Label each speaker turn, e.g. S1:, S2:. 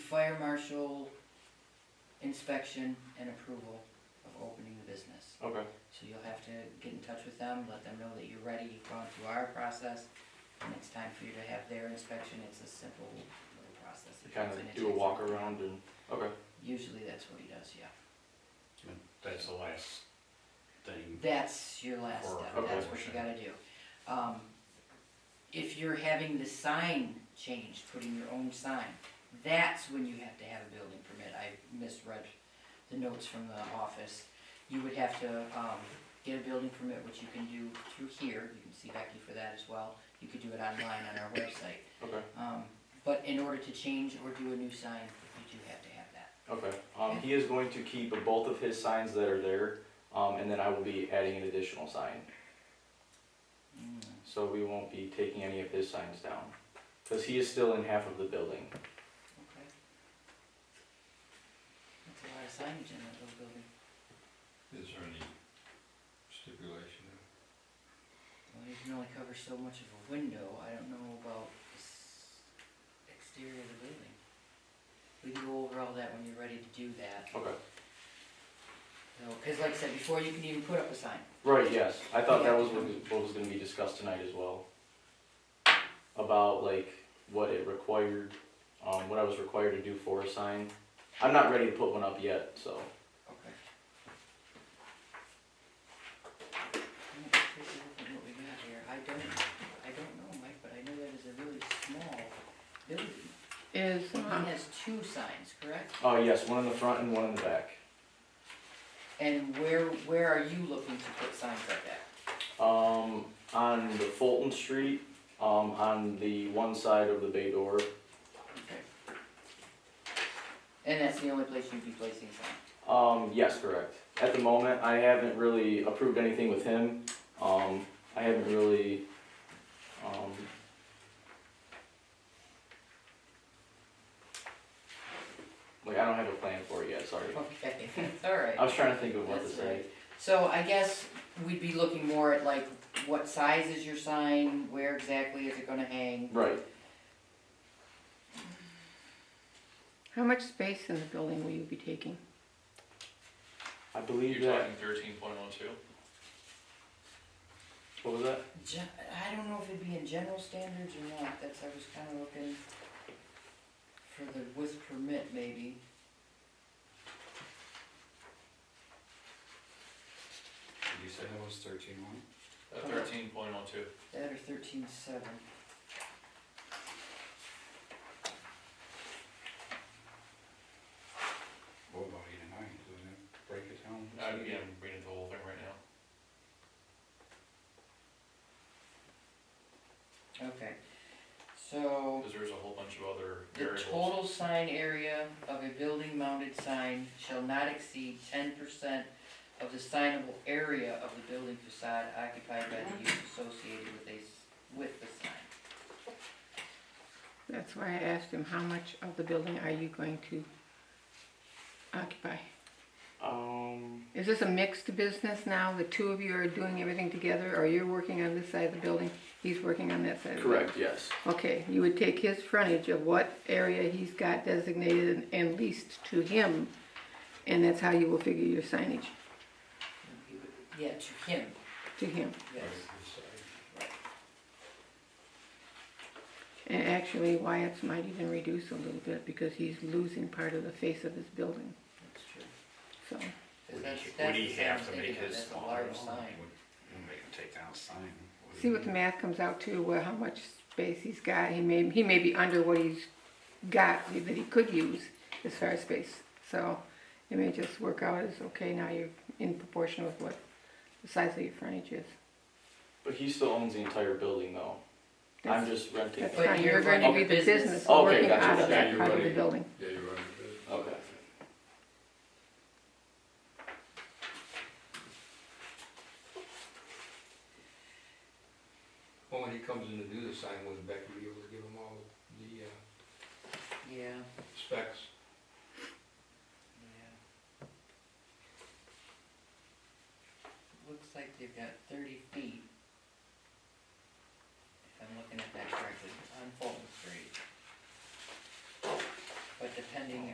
S1: fire marshal inspection and approval of opening the business.
S2: Okay,
S1: So you'll have to get in touch with them, let them know that you're ready, you've gone through our process, and it's time for you to have their inspection, it's a simple little process.
S2: to kind of
S1: And it
S2: do a
S1: takes-
S2: walk around and, okay,
S1: Usually that's what he does, yeah.
S3: That's the last thing.
S1: That's your last
S3: Or
S1: step, that's what you
S3: promotion.
S1: gotta do. Um, If you're having the sign changed, putting your own sign, that's when you have to have a building permit. I misread the notes from the office. You would have to, um, get a building permit, which you can do through here, you can see Becky for that as well. You could do it online on our website.
S2: okay,
S1: Um, But in order to change or do a new sign, you do have to have that.
S2: okay. Um, he is going to keep both of his signs that are there, um, and then I will be adding an additional sign.
S1: Mm.
S2: So we won't be taking any of his signs down, because he is still in half of the building.
S1: Okay. That's a lot of signage in that little building.
S4: Is there any stipulation?
S1: Well, you can only cover so much of a window, I don't know about this exterior of the building. We can go over all that when you're ready to do that,
S2: Okay.
S1: so, cause like I said, before you can even put up a sign.
S2: Right, yes. I thought that was what, what was gonna be discussed tonight as well. About like what it required, um, what I was required to do for a sign. I'm not ready to put one up yet, so.
S1: Okay. I'm gonna take a look at what we got here, I don't, I don't know, Mike, but I know that is a really small building.
S5: is,
S1: He
S5: uh,
S1: has two signs, correct?
S2: Oh, yes, one in the front and one in the back.
S1: And where, where are you looking to put signs like that?
S2: Um, on the Fulton Street, um, on the one side of the bay door.
S1: Okay. And that's the only place you'd be placing signs?
S2: Um, yes, correct. At the moment, I haven't really approved anything with him. Um, I haven't really, um, like, I don't have a plan for it yet, sorry.
S1: Okay, that's all right.
S2: I was trying to think of what to
S1: That's
S2: say.
S1: So I guess we'd be looking more at like, what size is your sign, where exactly is it gonna hang?
S2: Right,
S5: how much space in the building will you be taking?
S2: I believe
S3: You're
S2: that,
S3: talking thirteen point one two?
S2: what was that?
S1: Ge- I don't know if it'd be in general standards or not, that's, I was kinda looking for the with permit maybe.
S4: Did you say that was thirteen one?
S3: Uh, thirteen point one two.
S1: That or thirteen seven.
S4: What about eight and nine, doesn't it break it down?
S2: Oh,
S3: Uh, yeah, I'm reading the whole thing right now.
S1: Okay, so.
S3: Cause there's a whole bunch of other
S1: The
S3: variables.
S1: total sign area of a building mounted sign shall not exceed ten percent of the signable area of the building facade occupied by the use associated with a, s- with the sign.
S5: That's why I asked him, how much of the building are you going to occupy?
S2: Um,
S5: Is this a mixed business now? The two of you are doing everything together, or you're working on this side of the building, he's working on that side of the building?
S2: correct, yes.
S5: Okay, you would take his frontage of what area he's got designated and leased to him, and that's how you will figure your signage
S1: You would- Yeah, to him,
S5: to him.
S1: yes.
S5: And actually, Wyatt's might even reduce a little bit because he's losing part of the face of his building,
S1: That's true. 'Cause
S5: so.
S3: Would
S1: that's-
S3: he-
S1: that's
S3: would he
S1: the sign I'm
S3: have to
S1: thinking
S3: make
S1: of,
S3: his
S1: that's a
S3: smaller
S1: large
S3: or
S1: sign.
S4: We'll make him take down a sign. do
S5: See
S4: you
S5: what the
S4: mean?
S5: math comes out to, where how much space he's got, he may, he may be under what he's got that he could use as far as space. So it may just work out as, okay, now you're in proportion with what the size of your frontage is.
S2: But he still owns the entire building though. I'm
S5: That's-
S2: just renting.
S5: That's
S2: it.
S1: But
S5: fine,
S1: you're
S5: you're going to
S1: running
S5: be
S1: the
S5: the
S1: business.
S5: business
S2: Okay,
S5: working
S2: gotcha.
S5: out of
S4: Yeah,
S5: that
S4: you're
S5: part of the
S4: running.
S5: building.
S4: Yeah, you're right. it is.
S2: Okay.
S6: Well, when he comes in to do the sign, wouldn't Becky be able to give him all the uh,
S1: Yeah,
S6: specs?
S1: yeah. Looks like they've got thirty feet. If I'm looking at that correctly, on Fulton Street. But depending depending